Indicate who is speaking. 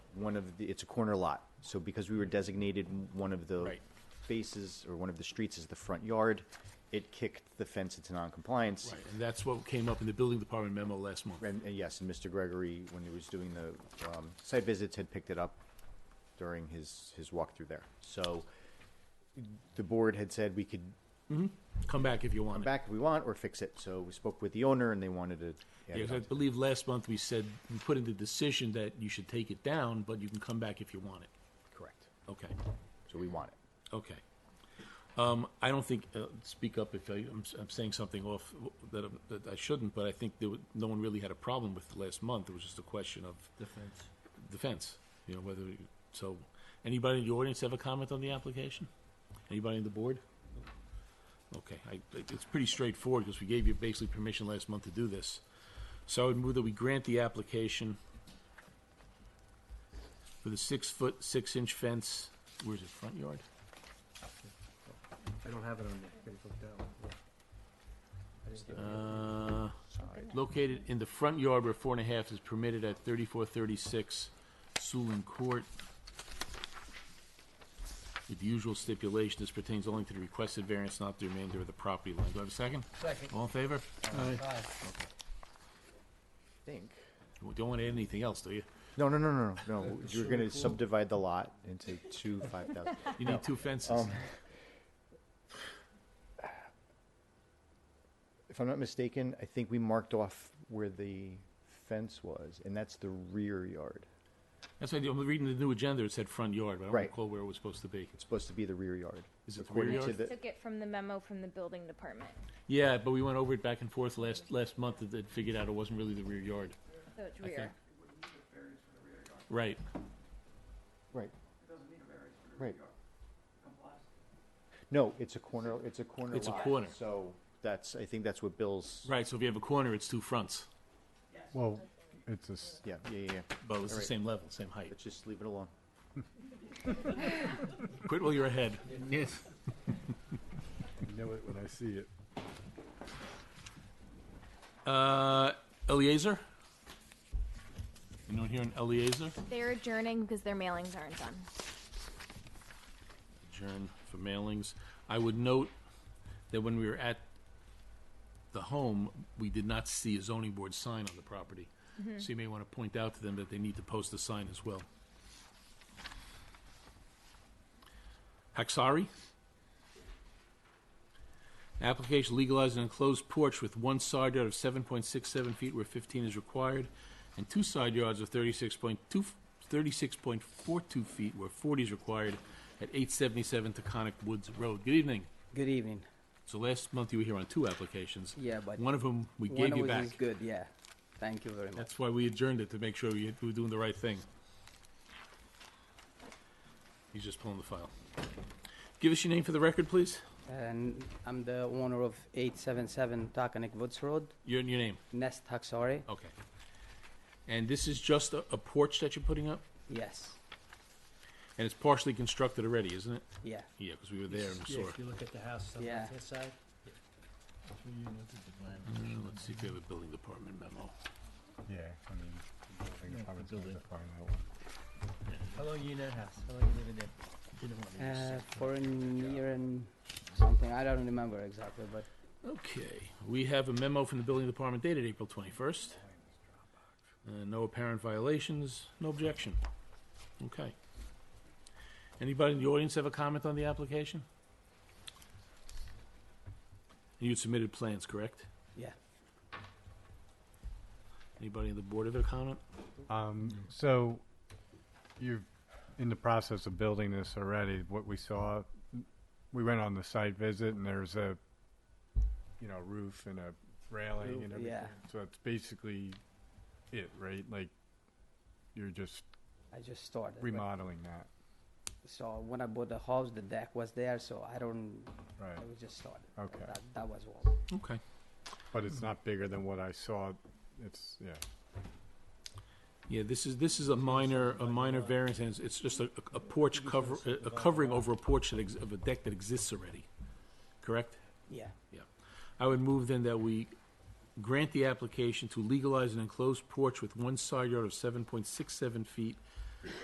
Speaker 1: one of the, it's a corner lot. So because we were designated m- one of the
Speaker 2: Mm-hmm. Right.
Speaker 1: faces or one of the streets as the front yard, it kicked the fence into non-compliance.
Speaker 2: Right, and that's what came up in the building department memo last month.
Speaker 1: And, and yes, and Mr. Gregory, when he was doing the, um, site visits, had picked it up during his, his walkthrough there. So the board had said we could
Speaker 2: Come back if you want.
Speaker 1: come
Speaker 2: it.
Speaker 1: back if we want or fix it. So we spoke with the owner and they wanted to. add
Speaker 2: Yeah,
Speaker 1: it
Speaker 2: 'cause I
Speaker 1: on.
Speaker 2: believe last month we said, we put in the decision that you should take it down, but you can come back if you want it.
Speaker 1: Correct.
Speaker 2: Okay,
Speaker 1: So we want it.
Speaker 2: okay. Um, I don't think, uh, speak up if I, I'm, s am saying something off that, I'm- that I shouldn't, but I think there, wa- no one really had a problem with last month. It was just a question of
Speaker 3: Defense.
Speaker 2: defense, you know, whether, you- so, anybody in the audience have a comment on the application? Anybody on the board? Okay, I, it- it's pretty straightforward, because we gave you basically permission last month to do this. So I would move that we grant the application for the six-foot, six-inch fence, where's it, front yard?
Speaker 3: I don't have it on there. Gotta look that one. Yeah. I didn't get
Speaker 2: Uh,
Speaker 3: it.
Speaker 2: located in the front yard where four and a half is permitted at thirty-four thirty-six Sulin Court. With the usual stipulation, this pertains only to the requested variance, not the remainder of the property line. Do I have a second?
Speaker 3: Second.
Speaker 2: All in favor? Aye.
Speaker 3: Aye.
Speaker 1: Think.
Speaker 2: You Don't want to add anything else, do you?
Speaker 1: No, no, no, no, no, no. You're gonna subdivide the lot into two five thousand.
Speaker 2: You need two fences.
Speaker 1: Um, If I'm not mistaken, I think we marked off where the fence was, and that's the rear yard.
Speaker 2: That's why I'm reading the new agenda, it said front yard, but I don't
Speaker 1: Right.
Speaker 2: recall where it was supposed to be.
Speaker 1: It's supposed to be the rear yard.
Speaker 2: Is it the rear
Speaker 1: according to
Speaker 2: yard?
Speaker 1: the-
Speaker 4: Took it from the memo from the building department,
Speaker 2: Yeah, but we went over it back and forth last, last month, and then figured out it wasn't really the rear yard.
Speaker 4: so it's
Speaker 2: I think.
Speaker 4: rear.
Speaker 2: Right.
Speaker 1: Right. Right. No, it's a corner, it's a corner
Speaker 2: It's a
Speaker 1: lot,
Speaker 2: corner.
Speaker 1: So that's, I think that's what Bill's,
Speaker 2: Right, so if you have a corner, it's two fronts,
Speaker 5: Well, it's a, s-
Speaker 1: yeah, yeah, yeah, yeah.
Speaker 2: but it's the same level, same height.
Speaker 1: Let's just leave it alone.
Speaker 2: Quit while you're ahead. Yes.
Speaker 5: I know it when I see it.
Speaker 2: Uh, Eliezer? Anyone here in Eliezer?
Speaker 4: They're adjourning because their mailings aren't done.
Speaker 2: Adjourn for mailings. I would note that when we were at the home, we did not see a zoning board sign on the property. So you may want to point out to them that they need to post a sign as well. Haxari? Application legalized an enclosed porch with one side yard of seven point six seven feet where fifteen is required, and two side yards of thirty-six point two, thirty-six point four two feet where forty is required at eight seventy-seven Taconic Woods Road. Good evening.
Speaker 6: Good evening.
Speaker 2: So last month you were here on two applications.
Speaker 6: Yeah, but
Speaker 2: One of whom we
Speaker 6: one
Speaker 2: gave
Speaker 6: of
Speaker 2: you
Speaker 6: it
Speaker 2: back.
Speaker 6: is good. Yeah, thank you very much.
Speaker 2: That's why we adjourned it, to make sure we we were doing the right thing. He's just pulling the file. Give us your name for the record, please.
Speaker 6: And I'm the owner of 877 Taconic Woods Road,
Speaker 2: Your, your name.
Speaker 6: Nest Haxari.
Speaker 2: Okay. And this is just a, a porch that you're putting up?
Speaker 6: Yes,
Speaker 2: And it's partially constructed already, isn't it?
Speaker 6: yeah.
Speaker 2: Yeah, because we were there and
Speaker 3: Yeah,
Speaker 2: saw.
Speaker 3: If you look at the house on the
Speaker 6: Yeah.
Speaker 3: left-hand side.
Speaker 2: Uh, Let's see if we have a building department memo.
Speaker 5: Yeah, I mean, I think it's probably
Speaker 3: the building.
Speaker 5: that far in that one.
Speaker 3: How long you in that house? How long you living there? You don't want me to
Speaker 6: Uh,
Speaker 3: say.
Speaker 6: for a year and something. I don't remember exactly, but
Speaker 2: Okay, we have a memo from the building department dated April twenty-first. Uh, no apparent violations, no objection. Okay. Anybody in the audience have a comment on the application? You submitted plans, correct?
Speaker 6: yeah.
Speaker 2: Anybody in the board have a comment?
Speaker 5: Um, so you're in the process of building this already. What we saw, we went on the site visit and there's a, you know, roof and a railing
Speaker 6: Roof,
Speaker 5: and everything.
Speaker 6: yeah.
Speaker 5: So that's basically it, right? Like you're just
Speaker 6: I just started. but-
Speaker 5: remodeling that,
Speaker 6: So when I bought the house, the deck was there. So I don't.
Speaker 5: right?
Speaker 6: I was just started.
Speaker 5: Okay.
Speaker 6: That, that was all.
Speaker 2: Okay.
Speaker 5: But it's not bigger than what I saw. It's, yeah.
Speaker 2: Yeah, this is, this is a minor, a minor variance, and it's, it's just a, a porch cover, a- a covering over a porch that ex, of a deck that exists already, correct?
Speaker 6: Yeah.
Speaker 2: I would move then that we grant the application to legalize an enclosed porch with one side yard of seven point six seven feet